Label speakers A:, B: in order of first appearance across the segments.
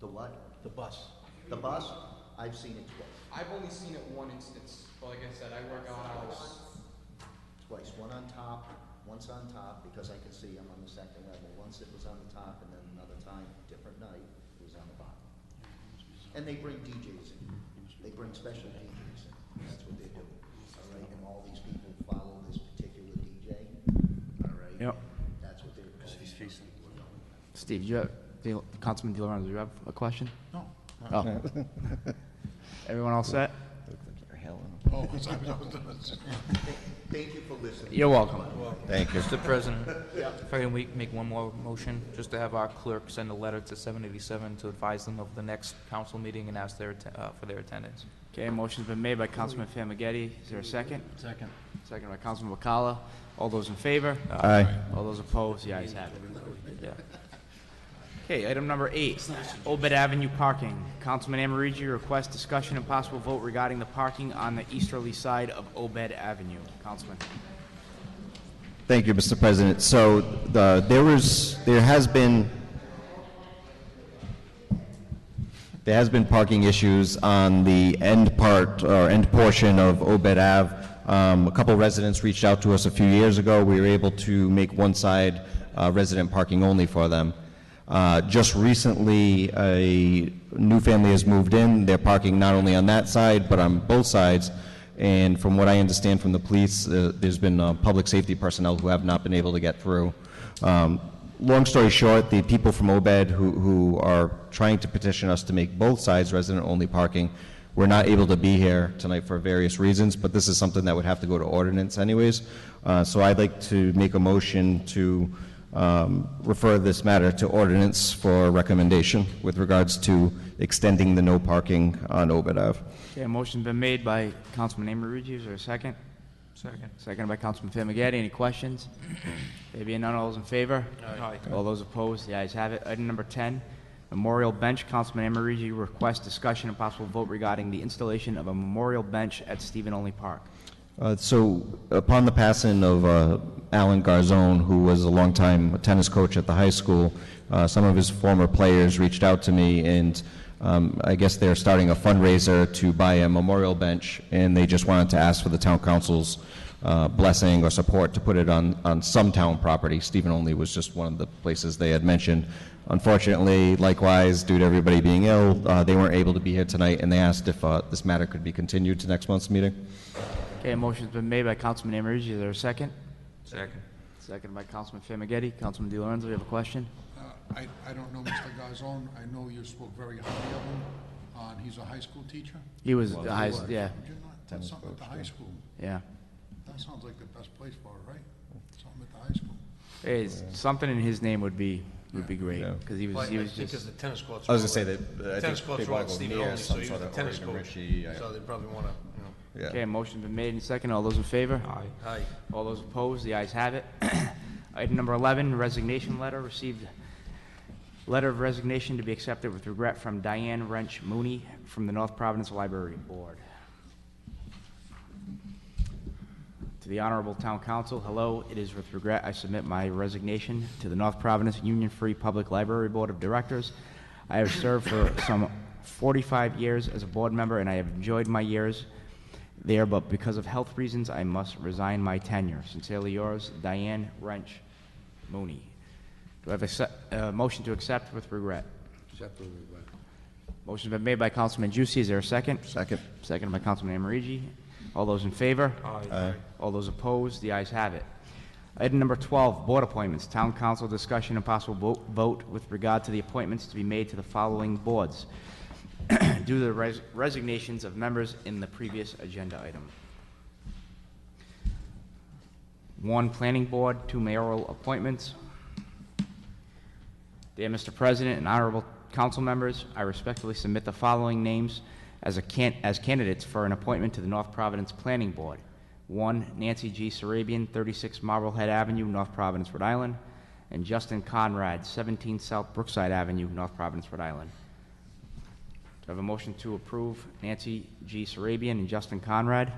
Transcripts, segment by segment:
A: The what?
B: the bus.
A: The bus? I've seen it twice.
C: I've only seen it one instance, but like I said, I work out hours.
A: Twice. One on top, once on top, because I could see I'm on the second level. Once it was on the top, and then another time, different night, it was on the bottom. And they bring DJs in. They bring special DJs in. That's what they do. All right, and all these people follow this particular DJ. All right?
D: Yep.
A: That's what they're. Because he's facing.
E: Steve, do you have, Di- Councilman Di Lorenzo, do you have a question? No. Oh. Everyone all set?
A: Thank you for listening.
E: You're welcome.
F: Thank you.
G: Mr. President,
A: Yeah.
G: if I can we- make one more motion, just to have our clerk send a letter to 787 to advise them of the next council meeting and ask their, atten- uh, for their attendance.
E: Okay, motion's been made by Councilman Famagetti. Is there a second?
B: Second.
E: Second by Councilman Wakala. All those in favor?
F: Aye.
E: All those opposed? The ayes have it. Yeah. Okay, item number eight, Obed Avenue parking. Councilman Amorigi requests discussion and possible vote regarding the parking on the easterly side of Obed Avenue. Councilman.
F: Thank you, Mr. President. So the, there was, there has been, there has been parking issues on the end part or end portion of Obed Ave. Um, a couple residents reached out to us a few years ago. We were able to make one side uh, resident parking only for them. Uh, just recently, a new family has moved in. They're parking not only on that side, but on both sides. And from what I understand from the police, uh, there's been uh, public safety personnel who have not been able to get through. Um, long story short, the people from OBED who, who are trying to petition us to make both sides resident only parking were not able to be here tonight for various reasons, but this is something that would have to go to ordinance anyways. Uh, so I'd like to make a motion to um, refer this matter to ordinance for recommendation with regards to extending the no parking on OBED Ave.
E: Okay, a motion's been made by Councilman Amorigi. Is there a second?
G: Second.
E: Seconded by Councilman Famagetti. Any questions? There being none, all those in favor?
G: Aye.
E: All those opposed, the ayes have it. Item number 10, memorial bench. Councilman Amorigi requests discussion and possible vote regarding the installation of a memorial bench at Stephen Only Park.
F: Uh, So upon the passing of uh, Alan Garzone, who was a longtime tennis coach at the high school, uh, some of his former players reached out to me, and um, I guess they're starting a fundraiser to buy a memorial bench, and they just wanted to ask for the town council's uh, blessing or support to put it on, on some town property. Stephen Only was just one of the places they had mentioned. Unfortunately, likewise, due to everybody being ill, uh, they weren't able to be here tonight, and they asked if uh, this matter could be continued to next month's meeting.
E: Okay, a motion's been made by Councilman Amorigi. Is there a second?
G: Second.
E: Seconded by Councilman Famagetti. Councilman DiLorenzo, you have a question?
H: Uh, I, I don't know Mr. Garzon. I know you spoke very highly of him. Uh, and he's a high school teacher.
E: He was the highest, yeah,
H: Did you not, that's something at the high school.
E: yeah.
H: That sounds like the best place for it, right? Something at the high school.
E: Hey, it's- something in his name would be, would be great,
F: Yeah.
E: because he
B: Well,
E: was,
B: I
E: he was
B: think 'cause
E: just,
B: the tennis courts.
F: I was
B: were
F: gonna say
B: all-
F: that, uh, I
B: the Tennis
F: think
B: courts
F: they
B: were all
F: wanna go
B: Steve
F: near
B: only,
F: some
B: so he was
F: sort
B: a
F: of
B: tennis
F: Oregon
B: coach.
F: Ritchie, yeah.
B: So they probably want to, you know.
F: Yeah.
E: okay, a motion's been made and seconded. All those in favor?
G: Aye.
B: Hi.
E: All those opposed, the ayes have it. Item number 11, resignation letter, received letter of resignation to be accepted with regret from Diane Wrench Mooney from the North Providence Library Board. To the Honorable Town Council, hello, it is with regret I submit my resignation to the North Providence Union Free Public Library Board of Directors. I have served for some 45 years as a board member, and I have enjoyed my years there, but because of health reasons, I must resign my tenure. Sincerely yours, Diane Wrench Mooney. Do I have a se- uh, motion to accept with regret?
B: Except for the regret.
E: Motion's been made by Councilman Juicy, is there a second?
F: Second.
E: Second by Councilman Amorigi. All those in favor?
G: Aye.
E: All those opposed, the ayes have it. Item number 12, board appointments. Town council discussion and possible vo- vote with regard to the appointments to be made to the following boards due to the res- resignations of members in the previous agenda item. One planning board, two mayoral appointments. Dear Mr. President and honorable council members, I respectfully submit the following names as a can, as candidates for an appointment to the North Providence Planning Board. One, Nancy G. Sarabian, 36 Marblehead Avenue, North Providence, Rhode Island, and Justin Conrad, 17 South Brookside Avenue, North Providence, Rhode Island. Do I have a motion to approve Nancy G. Sarabian and Justin Conrad?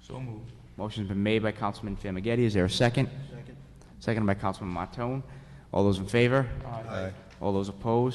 G: So moved.
E: Motion's been made by Councilman Famagetti. Is there a second? Second. Seconded by Councilman Matone. All those in favor? All those opposed?